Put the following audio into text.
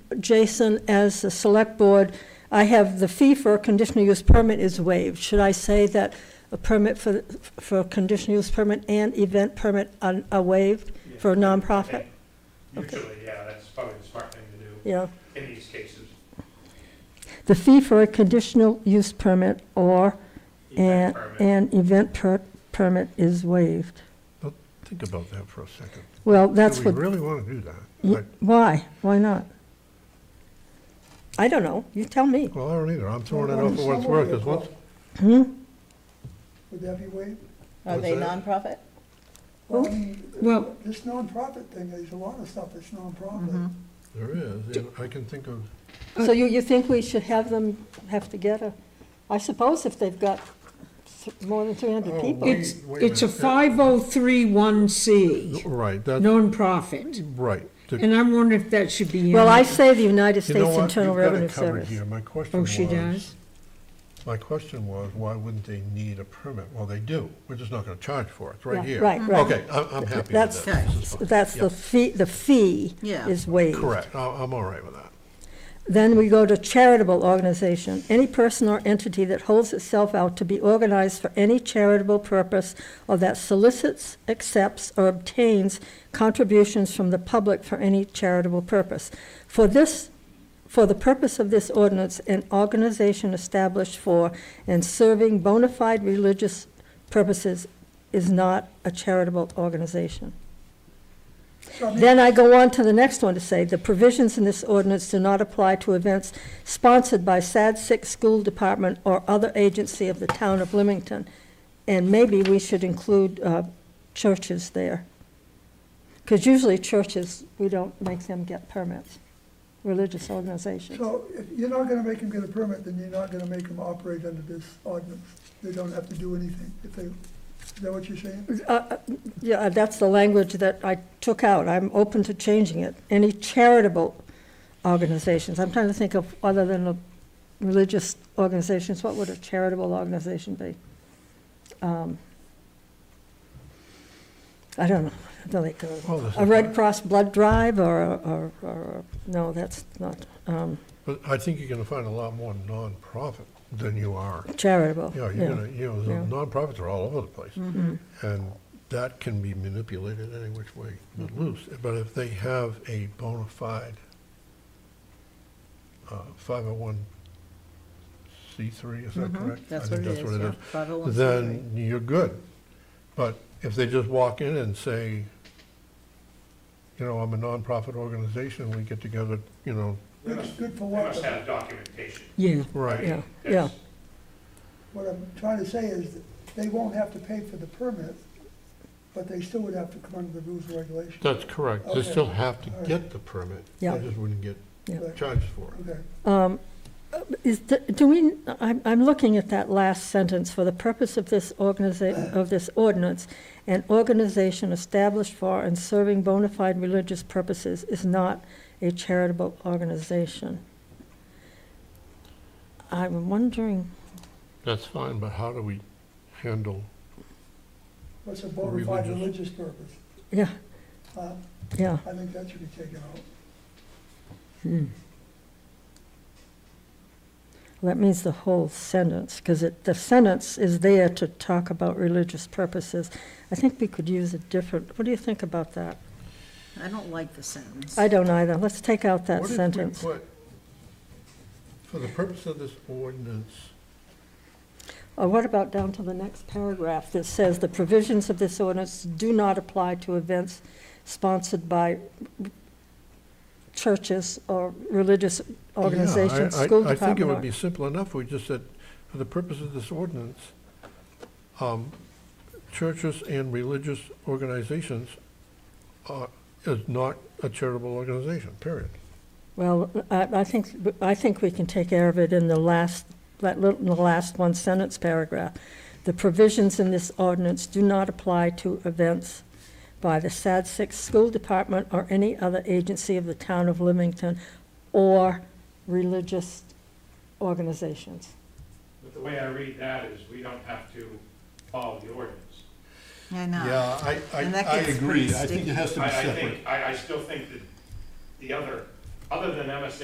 Jason, as the select board, I have the fee for a conditional use permit is waived. Should I say that a permit for, for a conditional use permit and event permit are are waived for a nonprofit? Okay. Usually, yeah, that's probably the smart thing to Yeah. do in these cases. The fee for a conditional use permit or Event an, permit. an event per, permit is waived. Think about that for a second. Well, that's Do what, Mm. we really want to do that? y- Like, why? Why not? I don't know. You tell me. Well, I don't either. I'm throwing it Well, out for what it's worth, because once, Would that be waived? Are What's they that? nonprofit? Well, I mean, Well- This nonprofit thing, there's a lot of stuff that's nonprofit. there is, yeah, I can think of, So you, you think we should have them have together? I suppose if they've got th- more than three Oh, hundred people. wait. It's, wait a it's a minute. 5031C, right, that, nonprofit. right. The- And I'm wondering if that should be in. Well, I say the United You know States what? Internal You've got it Revenue covered Service. here. My question Oh, was. she does? My question was, why wouldn't they need a permit? Well, they do. We're just not going to charge for it. It's right Yeah, here. right, right. Okay, I'm, I'm happy That's- with that. This is fine. That's the fee, the fee Yeah. is waived. Correct. I- I'm all right with that. Then we go to charitable organization. Any person or entity that holds itself out to be organized for any charitable purpose or that solicits, accepts, or obtains contributions from the public for any charitable purpose. For this, for the purpose of this ordinance, an organization established for and serving bona fide religious purposes is not a charitable organization. So I mean, Then I go on to the next one to say, the provisions in this ordinance do not apply to events sponsored by SAD Sick School Department or other agency of the town of Leamington. And maybe we should include uh, churches there. Because usually churches, we don't make them get permits, religious organizations. So if you're not gonna make them get a permit, then you're not gonna make them operate under this ordinance. They don't have to do anything if they, is that what you're saying? Uh, uh, Yeah, that's the language that I took out. I'm open to changing it. Any charitable organizations, I'm trying to think of, other than the religious organizations, what would a charitable organization be? Um, I don't know, I don't think, uh, Well, this a is- Red Cross blood drive or, a- or, or, no, that's not um, But I think you're going to find a lot more nonprofit than you are. charitable. Oh, Yeah, Mm-hmm. you're gonna, you know, the Yeah. nonprofits are all over the place. And that can be manipulated any which way, but loose. But if they have a bona fide uh, 501c3, is that correct? That's I what think it is, yeah. Five oh one. Then you're good. But if they just walk in and say, you know, I'm a nonprofit organization, we get together, you know, They It's must- good they for what? must have documentation. Yeah. right. Yeah, yeah. What I'm trying to say is that they won't have to pay for the permit, but they still would have to come under the rules and regulations. That's correct. They Okay. still have to All right. get the permit. Yeah. They just wouldn't get Right, charged for it. Okay, Um, Is, the- do we, I'm, I'm looking at that last sentence, for the purpose of this organiza, of this ordinance, an organization established for and serving bona fide religious purposes is not a charitable organization. I'm wondering, That's fine, but how do we handle, what's a bona fide Religious. religious purpose? yeah, Huh? yeah, I think that should be taken out. that means the whole sentence, because it, the sentence is there to talk about religious purposes. I think we could use a different, what do you think about that? I don't like the sentence. I don't either, let's take out that what if we sentence. put, for the purpose of this ordinance, Or what about down to the next paragraph that says, "The provisions of this ordinance do not apply to events sponsored by churches or religious organizations, Yeah, I- I- school I think it department." would be simple enough, we just said, for the purpose of this ordinance, um, churches and religious organizations are, is not a charitable organization, period. or- Well, I, I think, I think we can take care of it in the last, that little, in the last one sentence paragraph. The provisions in this ordinance do not apply to events by the SAD Six School Department or any other agency of the town of Leamington or religious organizations. But the way I read that is we don't have to follow the ordinance. I know. I, And that I gets agree. pretty I think it has I, I think, I, I still think that the other, other than MSA